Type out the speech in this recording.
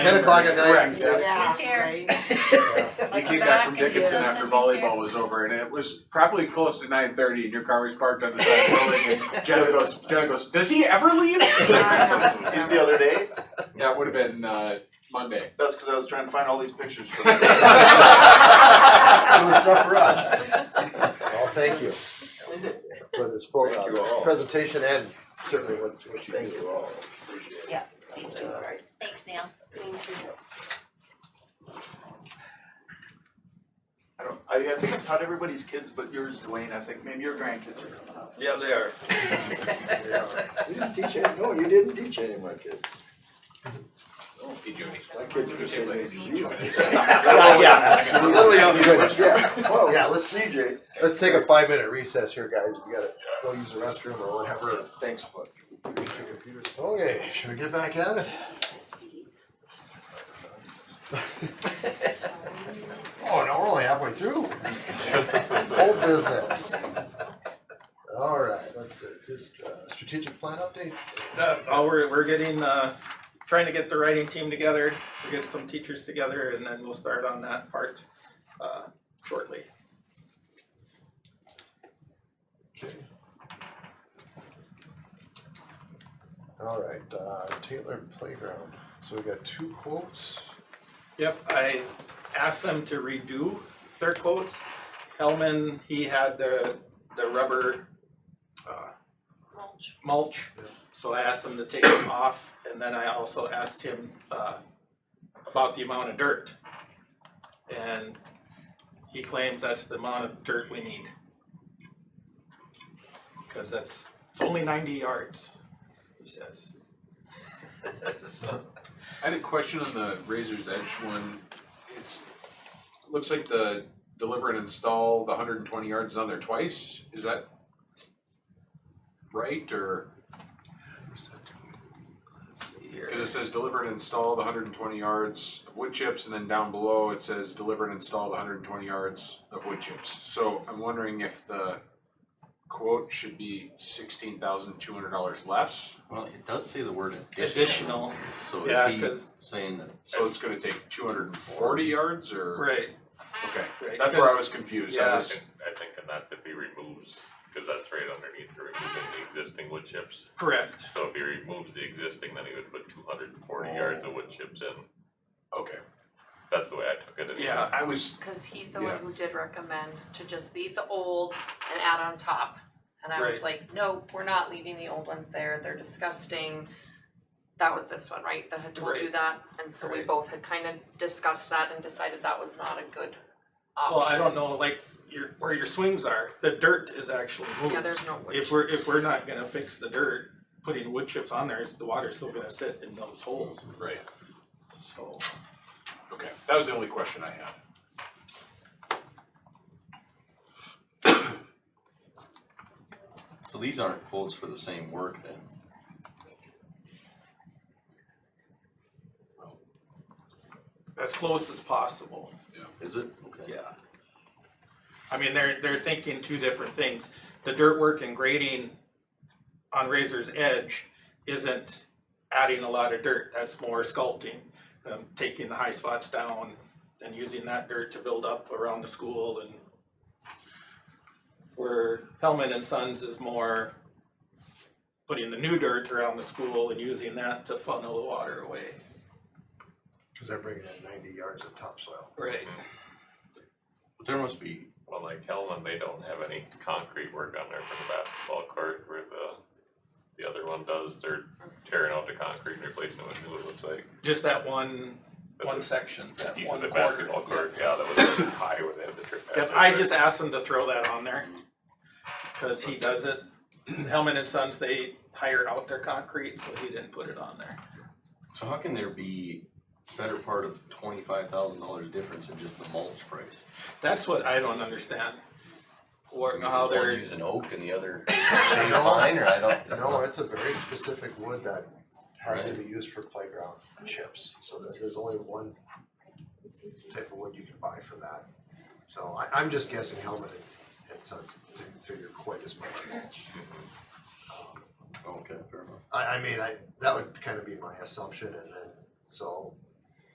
Ten o'clock at night. Correct, yeah. Yeah. He's here. right. We Like came the back from back and Dickinson the- after volleyball was over and it was probably close to nine thirty and your car was parked on the side of the building and Jenna goes, Jenna goes, does he ever leave? Just the other day, That would have been uh Monday. that's because I was trying to find all these pictures. From It was tough for us. Well, thank you for Thank this you program, all. presentation and certainly what what you do. Thank you. Thanks, Neil. I don't, I, I think I've taught everybody's kids, but yours, Dwayne, I think maybe your grandkids are coming up. Yeah, they are. They are. You didn't teach any, no, you didn't teach any of my kids. Hey, Judy. My kids are the same age as you. Yeah. Really on the Good, yeah, well, yeah, let's see, Jay. Let's take a five minute recess here, guys, we gotta go use the restroom or whatever. Thanks, bud. Okay, should we get back at it? Oh, no, we're only halfway through. Old business. Alright, let's see, just uh, strategic plan update. Uh, oh, we're, we're getting, uh, trying to get the writing team together, we're getting some teachers together, and then we'll start on that part, uh, shortly. Alright, uh, Taylor Playground, so we got two quotes. Yep, I asked them to redo their quotes. Hellman, he had the, the rubber, uh, Mulch. mulch. So I asked him to take them off, and then I also asked him, uh, about the amount of dirt. And he claims that's the amount of dirt we need. Cause that's, it's only ninety yards, he says. I had a question on the Razor's Edge one. It's, looks like the deliver and install the hundred and twenty yards is on there twice. Is that right or, Let's see here. cause it says deliver and install the hundred and twenty yards of wood chips and then down below it says deliver and install the hundred and twenty yards of wood chips. So I'm wondering if the quote should be sixteen thousand two hundred dollars less. Well, it does say the word additional, Additional, so yeah, is 'cause- he saying that? So it's gonna take two hundred and forty yards or, right, okay, right. that's where I was confused. I Yeah. was- I think, and that's if he removes, cause that's right underneath, you're removing the existing wood chips. Correct, So if he removes the existing, then he would put two hundred and forty yards of wood chips in, Okay, that's the way I took it. anyway. yeah. I was Cause he's the Yeah. one who did recommend to just leave the old and add on top. And I was Right. like, nope, we're not leaving the old ones there, they're disgusting. That was this one, right, that had told you Right. that, and so we Right. both had kinda discussed that and decided that was not a good option. Well, I don't know, like, your, where your swings are, the dirt is actually moved. Yeah, there's no wood If we're, if we're not gonna fix the dirt, putting wood chips on there, it's- the water's still gonna sit in those holes, right. so. Okay, that was the only question I had. So these aren't quotes for the same work then? As close as possible, Is it? Okay. yeah. I mean, they're, they're thinking two different things. The dirt work and grading on Razor's Edge isn't adding a lot of dirt, that's more sculpting. Um, taking the high spots down and using that dirt to build up around the school and where Hellman and Sons is more putting the new dirt around the school and using that to funnel the water away. Cause they're bringing in ninety yards of topsoil. Right. Mm-hmm. But there must be, Well, like Hellman, they don't have any concrete work on there for the basketball court where the, the other one does, they're tearing out the concrete and replacing it with new, it looks like. Just that one, That's one a section, that Piece one of the quarter. basketball court, yeah, that was high where they had the trip. Yep, hazard I there. just asked him to throw that on there, cause he does it, Hellman and Sons, they hire out their concrete, so he didn't put it on there. so how can there be better part of twenty-five thousand dollars difference in just the mulch price? That's what I don't understand. I Or mean, how is one they're, Using oak and the other shade of pine, or I don't. No, it's a very specific wood that has to be used for playground chips, so there- there's only one type of wood you can buy for that. So I, I'm just guessing Hellman and, and Sons didn't figure quite as much. Um, Okay, fair enough. I, I mean, I, that would kind of be my assumption, and then, so